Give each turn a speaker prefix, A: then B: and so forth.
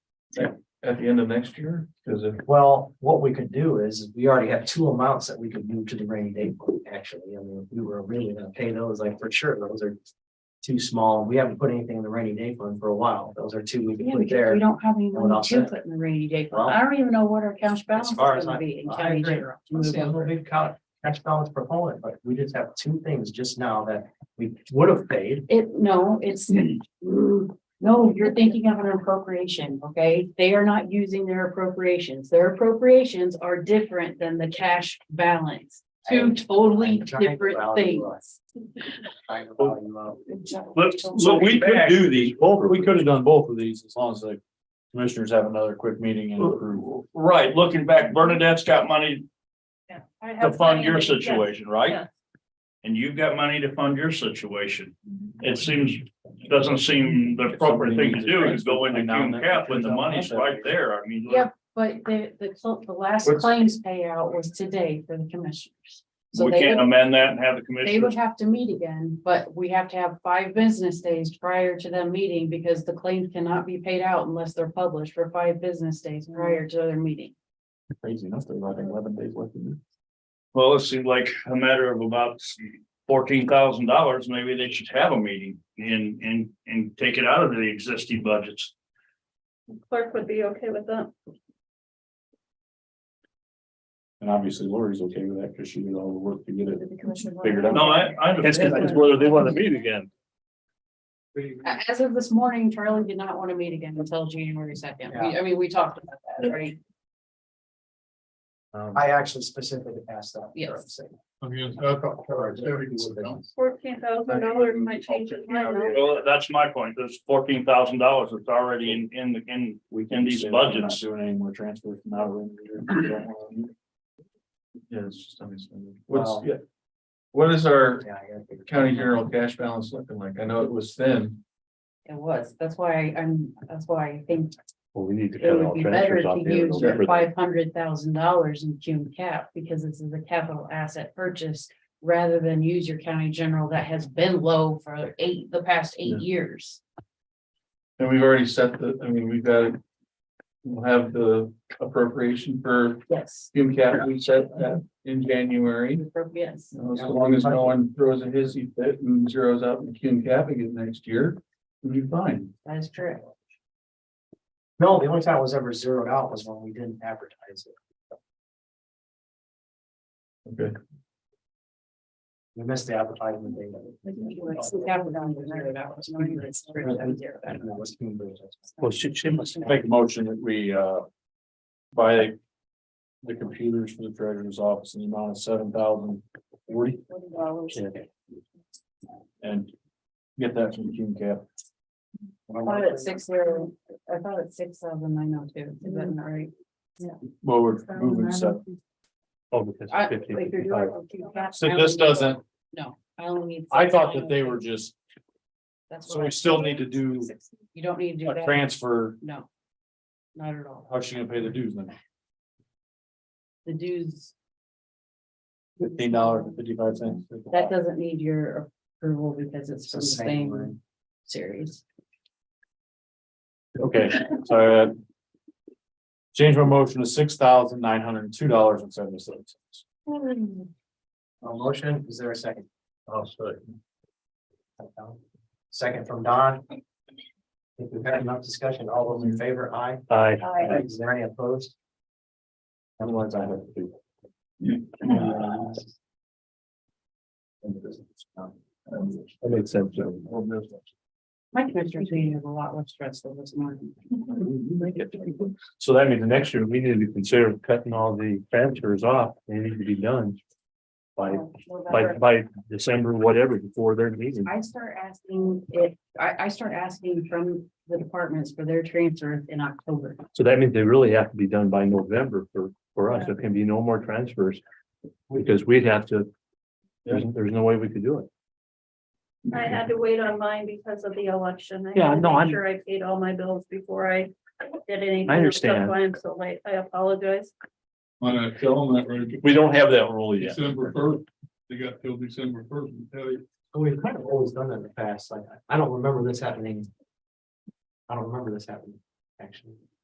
A: at the end of next year, because if,
B: Well, what we could do is, we already have two amounts that we could move to the rainy day fund, actually, I mean, if we were really gonna pay those, like, for sure, those are. Too small, we haven't put anything in the rainy day fund for a while, those are two we could
C: Yeah,
B: put
C: because we
B: there.
C: don't have any
B: Well,
C: money
B: that's
C: to
B: it.
C: put in the rainy day
B: Well,
C: fund. I don't even know what our cash balance is
B: far as
C: gonna
B: I-
C: be in
B: I
C: county
B: agree.
C: general. to
B: I'm
C: move
B: saying, I'm a
C: over.
B: big count, cash balance proponent, but we just have two things just now that we would have paid.
C: It, no, it's,
B: Hmm.
C: mm, no, you're thinking of an appropriation, okay? They are not using their appropriations. Their appropriations are different than the cash balance. Two totally
B: I'm trying to
C: different
B: value
C: things.
B: us. Trying to value up.
D: But, so we could do these, both, we could have done both of these as long as the commissioners have another quick meeting and approve.
A: right, looking back, Bernadette's got money to fund your situation, right?
E: Yeah.
A: And you've got money to fund your situation.
C: Mm-hmm.
A: It seems, doesn't seem the appropriate thing to do is go into Cume Cap when the money's right there. I mean.
C: Yep, but the, the, cl- the last
A: What's-
C: claims payout was today for the commissioners. So
A: We
C: they
A: can't
C: would,
A: amend that and have the
C: they would
A: commissioners.
C: have to meet again, but we have to have five business days prior to them meeting because the claims cannot be paid out unless they're published for five business days prior to their meeting.
D: Crazy enough, they've got eleven days left. to do.
A: Well, it seemed like a matter of about fourteen thousand dollars. Maybe they should have a meeting and, and, and take it out of the existing budgets.
E: Clerk would be okay with that.
D: And obviously Lori's okay with that because she did all the work to get it. Figured out.
A: No, I, I understand.
D: whether they want to meet again.
C: A- As of this morning, Charlie did not want to meet again until January second. We- I mean, we talked about that, right?
F: Um,
B: I actually specifically asked that.
C: Yes.
E: Fourteen thousand dollars might change his mind. now.
A: Well, that's my point. There's fourteen thousand dollars that's already in, in, the in,
D: We
A: In
D: can
A: these
D: say that we're not
A: budgets.
D: Doing any more transfers from out of. it.
F: Yeah, it's just unexpended.
B: Wow.
F: What's, yeah. What is our
B: Yeah, I gotta figure-
F: county general cash balance looking like? I know it was thin.
C: It was. That's why I'm, that's why I think
D: Well, we need to
C: It would be better to use your five hundred thousand dollars in June cap, because this is a capital asset purchase. Rather than use your county general that has been low for eight, the past
F: Yeah.
C: eight years.
F: And we've already set the, I mean, we've got. We'll have the appropriation for
C: Yes.
F: Hume Cap, we set that in January.
C: Yes,
F: You know, So long as no one throws a hissy fit and zeroes out in Hume Cap again next year, we'll be fine.
C: that is correct.
B: No, the only time it was ever zeroed out was when we didn't advertise it.
F: Okay.
B: We missed the advertisement date. I don't know, it was Cambridge.
D: Well, she, she must make a motion that we, uh, buy the computers for the treasurer's office in the amount of seven thousand forty and get that from King Cap.
C: I thought it's six zero, I thought it's six thousand nine oh two, is that not right?
D: Well, we're moving seven. Oh, because
C: I- like you're doing it with June cap, I
D: So
C: only
D: this
C: need-
D: doesn't,
C: No, I only need.
D: I thought that they were just, so we still need to do
C: You don't need to do
D: a
C: that,
D: transfer.
C: no. Not at all.
D: How's she gonna pay the dues then?
C: The dues,
D: Fifteen dollars and fifty-five cents.
C: that doesn't need your approval because it's
B: It's
C: from
B: the
C: the
B: same
C: same
B: line.
C: series.
D: Okay, so uh. Change my motion to six thousand nine hundred and two dollars and seventy-seven cents.
C: Hmm.
B: A Oh, motion, is there a second? Oh, sorry. Second from Don. If we've had enough discussion, all those in favor, aye.
D: Aye.
B: Aye. Is there any opposed? Otherwise, I have to.
D: Um, That makes sense.
C: My commissioner's meeting is a lot less stressful this morning.
D: So that means the next year, we need to consider cutting all the transfers off, they need to be done. By, by, by December, whatever, before their meeting.
C: I start asking if, I, I start asking from the departments for their transfers in October.
D: So that means they really have to be done by November for, for us, there can be no more transfers. Because we'd have to, there's, there's no way we could do it.
E: I had to wait on mine because of the election. I had
D: Yeah,
E: to
D: no,
E: make
D: I'm-
E: Sure I paid all my bills before I did anything.
D: I understand.
E: That's why I'm so late. I apologize.
G: Why not tell them that right?
D: We don't have that rule yet.
G: December first, they got till December first to tell you.
B: We've kind of always done that in the past, like, I don't remember this happening. I don't remember this happening, actually.